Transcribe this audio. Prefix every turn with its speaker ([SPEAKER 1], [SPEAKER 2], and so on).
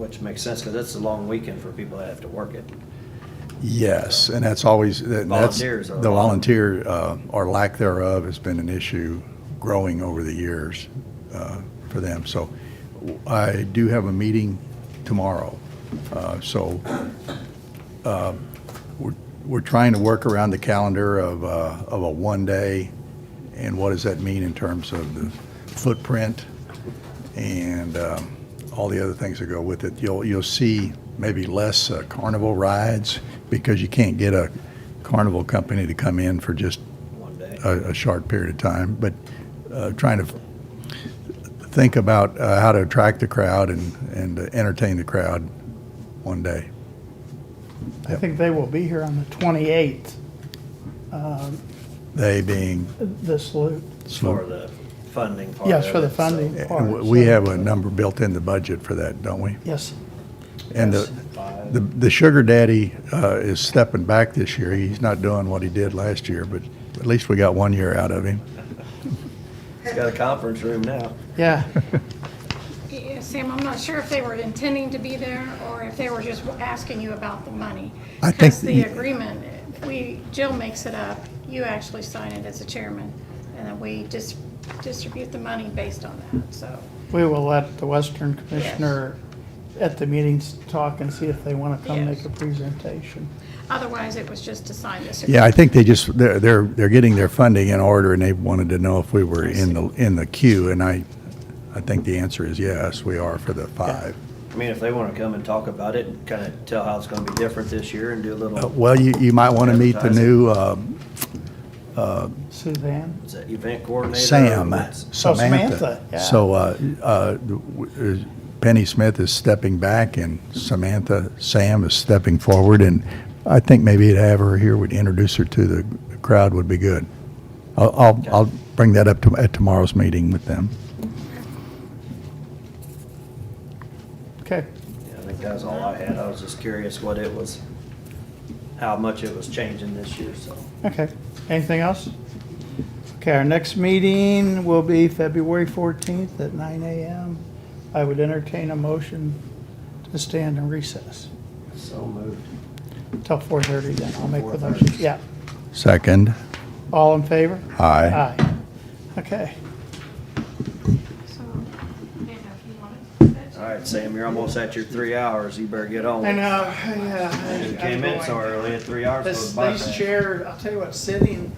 [SPEAKER 1] Which makes sense, because that's a long weekend for people that have to work it.
[SPEAKER 2] Yes, and that's always, that- and that's,
[SPEAKER 1] Volunteers are a
[SPEAKER 2] the
[SPEAKER 1] lot.
[SPEAKER 2] volunteer, uh, or lack thereof, has been an issue growing over the years uh, for them. So I do have a meeting tomorrow, Uh, so uh, we're we're trying to work around the calendar of, uh, of a one-day, and what does that mean in terms of the footprint and um, all the other things that go with it. You'll, you'll see maybe less uh, carnival rides because you can't get a carnival company to come in for just
[SPEAKER 1] One day.
[SPEAKER 2] a, a short period of time, but uh, trying to think about uh, how to attract the crowd and, and uh, entertain the crowd one day.
[SPEAKER 3] I think they will be here on the 28th,
[SPEAKER 2] They being
[SPEAKER 3] this loop.
[SPEAKER 1] For the funding part.
[SPEAKER 3] Yes,
[SPEAKER 1] of
[SPEAKER 3] for the
[SPEAKER 1] it, so-
[SPEAKER 3] funding.
[SPEAKER 2] And
[SPEAKER 3] part,
[SPEAKER 2] eh, we- we
[SPEAKER 3] so-
[SPEAKER 2] have a number built in the budget for that, don't we?
[SPEAKER 3] Yes,
[SPEAKER 2] And the, the, the sugar daddy uh, is stepping back this year. He's not doing what he did last year, but at least we got one year out of him.
[SPEAKER 1] He's got a conference room now.
[SPEAKER 3] yeah.
[SPEAKER 4] Yeah, Sam, I'm not sure if they were intending to be there or if they were just asking you about the money.
[SPEAKER 2] I think
[SPEAKER 4] Because the
[SPEAKER 2] you-
[SPEAKER 4] agreement, we, Jill makes it up, you actually sign it as a chairman, and then we just distribute the money based on that, so.
[SPEAKER 3] We will let the Western Commissioner at the meetings talk and see if they want to come
[SPEAKER 4] Yes.
[SPEAKER 3] make a presentation.
[SPEAKER 4] Otherwise, it was just to sign this.
[SPEAKER 2] Yeah, I
[SPEAKER 4] agreement.
[SPEAKER 2] think they just, they're, they're, they're getting their funding in order and they wanted to know if we were in the, in the queue. And I, I think the answer is yes, we are for the five.
[SPEAKER 1] I mean, if they want to come and talk about it and kind of tell how it's going to be different this year and do a
[SPEAKER 2] Uh,
[SPEAKER 1] little
[SPEAKER 2] Well, you, you might want to meet the new um,
[SPEAKER 3] Suzanne?
[SPEAKER 1] is that event coordinator. or
[SPEAKER 2] Sam,
[SPEAKER 1] what's-
[SPEAKER 3] Oh,
[SPEAKER 2] Samantha.
[SPEAKER 3] Samantha, yeah.
[SPEAKER 2] So uh, uh, w- Penny Smith is stepping back and Samantha, Sam is stepping forward. And I think maybe to have her here would introduce her to the crowd would be good. I'll, I'll, I'll bring that up to, at tomorrow's meeting with them.
[SPEAKER 3] Okay,
[SPEAKER 1] Yeah, I think that's all I had. I was just curious what it was, how much it was changing this year, so.
[SPEAKER 3] okay. Anything else? Okay, our next meeting will be February 14th at 9 AM. I would entertain a motion to stand in recess
[SPEAKER 1] So moved.
[SPEAKER 3] till 4:30 then. I'll make the motion.
[SPEAKER 1] 4:30.
[SPEAKER 3] Yeah.
[SPEAKER 2] Second,
[SPEAKER 3] All in favor?
[SPEAKER 2] aye.
[SPEAKER 3] Aye. Okay.
[SPEAKER 4] So, I didn't know if you wanted to-
[SPEAKER 1] All right, Sam, you're almost at your three hours. You better get on.
[SPEAKER 3] I know, yeah. I-
[SPEAKER 1] You
[SPEAKER 3] I'm
[SPEAKER 1] came in so
[SPEAKER 3] going.
[SPEAKER 1] early at three hours.
[SPEAKER 3] This,
[SPEAKER 1] goes by
[SPEAKER 3] these
[SPEAKER 1] fast.
[SPEAKER 3] chairs, I'll tell you what, sitting